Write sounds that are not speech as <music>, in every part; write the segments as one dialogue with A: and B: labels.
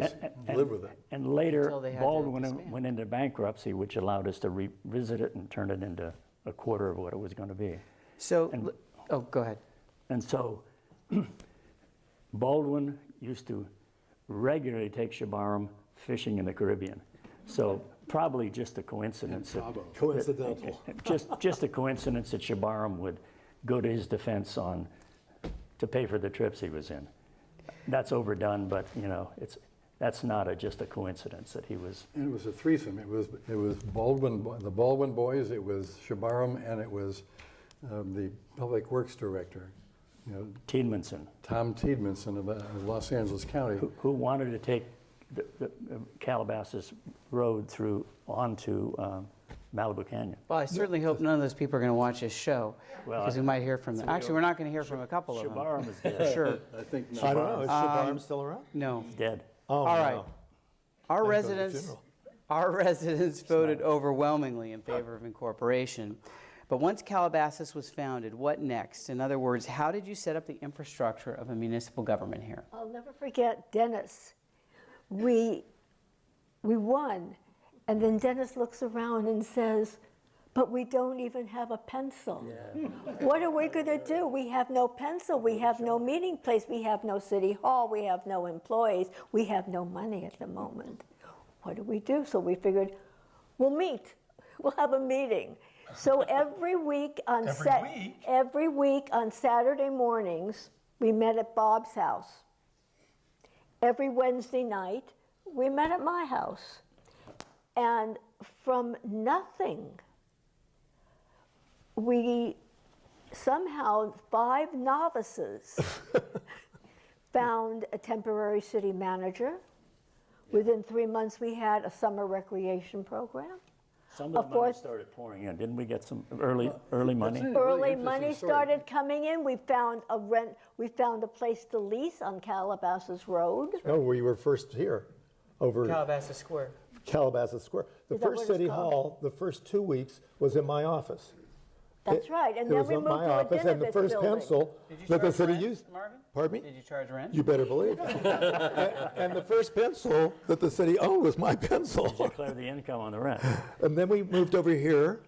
A: Just live with it.
B: And later
C: Until they had to
B: Baldwin went-
C: disband.
B: went into bankruptcy, which allowed us to revisit it and turn it into a quarter of what it was going to be.
C: So, l- oh, go ahead.
B: And so <clears throat> Baldwin used to regularly take Shabaram fishing in the Caribbean. So probably just a coincidence. that-
A: Coincidental.
B: Just, just a coincidence that Shabaram would go to his defense on, to pay for the trips he was in. That's overdone, but you know, it's, that's not a, just a coincidence that he was,
A: And it was a threesome. It was, it was Baldwin, bo- the Baldwin boys, it was Shabaram, and it was um, the Public Works Director, you know,
B: Tiedemannson.
A: Tom Tiedmanson of uh, of Los Angeles County.
B: who wanted to take the, the uh, Calabasas Road through onto um, Malibu Canyon.
C: Well, I certainly hope none of those people are going to watch this show,
B: Well,
C: because we might hear from them. Actually, we're not going to hear from a couple of them.
B: Shabaram is
C: for
B: dead.
C: Sure,
A: I think.
D: I don't know. Is
E: Um,
D: Shabaram still around?
C: no.
B: dead.
D: Oh,
C: All right.
D: no.
C: Our
D: go to the
C: residents,
D: funeral.
C: our <laughs> residents voted overwhelmingly in favor of incorporation. But once Calabasas was founded, what next? In other words, how did you set up the infrastructure of a municipal government here?
E: I'll never forget Dennis. We, we won. And then Dennis looks around and says, but we don't even have a pencil. <laughs> What are we going to do? We have no pencil. We have no meeting place. We have no city hall. We have no employees. We have no money at the moment. What do we do? So we figured, we'll meet. We'll have a meeting. So every week on
D: Every
E: Sat-
D: week?
E: every week on Saturday mornings, we met at Bob's house every Wednesday night, we met at my house. And from nothing, we somehow, five
D: <laughs>
E: novices found a temporary city manager. Within three months, we had a summer recreation program.
B: Some of
E: A
B: the money
E: fourth-
B: started pouring in. Didn't we get some early, early money?
A: it. really
E: Early
A: interesting
E: money
A: story.
E: started coming in. We found a rent, we found a place to lease on Calabasas Road.
D: No, we were first here over
C: Calabasas Square.
D: Calabasas Square. The
E: Is that
D: first
E: what it's
D: city
E: called?
D: hall, the first two weeks was in my office.
E: That's
D: It-
E: right, and
D: it
E: then
D: was
E: we
D: in
E: moved
D: my
E: to a
D: office, And the
E: Dinovich
D: first
E: building.
D: pencil
C: Did you
D: that the
C: charge
D: city
C: rent,
D: used.
C: Marvin?
D: Pardon me?
C: Did you charge rent?
D: You better believe
C: <laughs>
D: it. A- And the first pencil that the city owned was my pencil.
B: Declare the income on the rent.
D: And then we moved over here,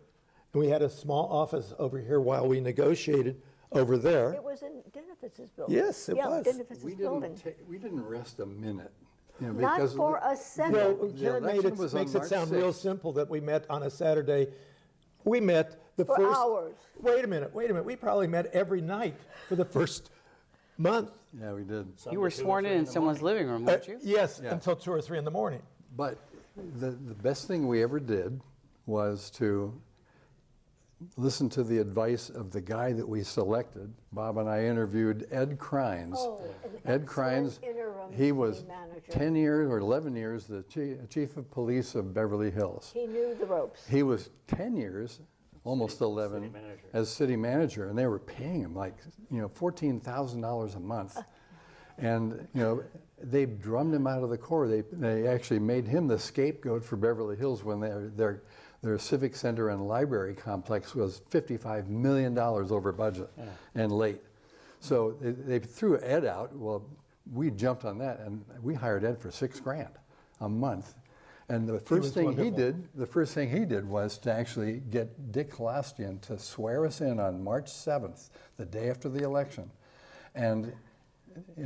D: and we had a small office over here while we negotiated over there.
E: It was in Dinovitz's building.
D: Yes, it
E: yeah,
D: was.
E: Dinovitz's
A: We
E: building.
A: didn't, ta- we didn't rest a minute. you know,
E: Not
A: because of
E: for
A: the-
E: a
D: Well,
E: second.
D: Karen made
A: election
D: it,
A: was on
D: makes it
A: March
D: sound real
A: 6th.
D: simple that we met on a Saturday. We met the
E: For
D: first.
E: hours.
D: Wait a minute, wait a minute. We probably met every night for the first month.
A: Yeah, we did.
C: You were sworn in in someone's living room, weren't
D: Uh,
C: you?
D: Yes,
A: Yeah.
D: until two or three in the morning.
A: But the, the best thing we ever did was to listen to the advice of the guy that we selected. Bob and I interviewed Ed Crines.
E: Oh, an
A: Ed
E: excellent
A: Crines,
E: interim
A: he was
E: city manager.
A: 10 years or 11 years the chief, chief of police of Beverly Hills.
E: He knew the ropes.
A: He was 10 years, almost 11,
B: manager.
A: as city manager, and they were paying him like, you know, $14,000 a
E: <laughs>
A: month. And, you know, they drummed him out of the Corps. They, they actually made him the scapegoat for Beverly Hills when their, their, their civic center and library complex was $55 million over budget and late. So they, they threw Ed out. Well, we jumped on that, and we hired Ed for six grand a month. And the first
D: was
A: thing he
D: wonderful.
A: did did- the first thing he did was to actually get Dick Kalastian to swear us in on March 7th, the day after the election, and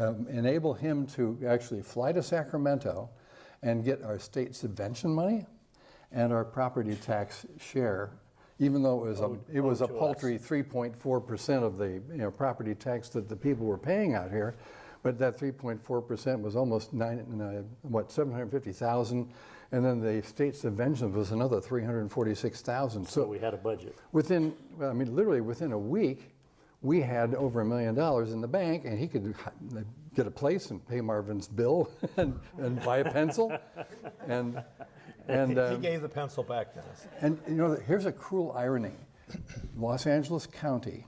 A: um, enable him to actually fly to Sacramento and get our state subvention money and our property tax share, even though it was a, it was a paltry 3.4% of the you know, property tax that the people were paying out here. But that 3.4% was almost nine, uh, what, 750,000? And then the state subvention was another 346,000.
B: So
A: So
B: we had a budget.
A: within, well, I mean, literally within a week, we had over a million dollars in the bank and he could h- get a place and pay Marvin's bill <laughs> and, and buy a pencil. And, and.
D: He
A: um,
D: gave the pencil back to us.
A: and you know, here's a cruel irony. Los Angeles County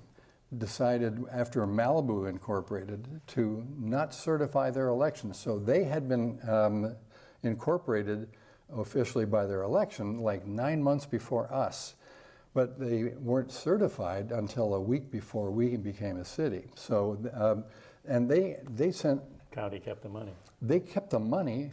A: decided after Malibu incorporated to not certify their election. So they had been um, incorporated officially by their election like nine months before us. But they weren't certified until a week before we became a city. So, um, and they, they sent,
B: County kept the money.
A: they kept the money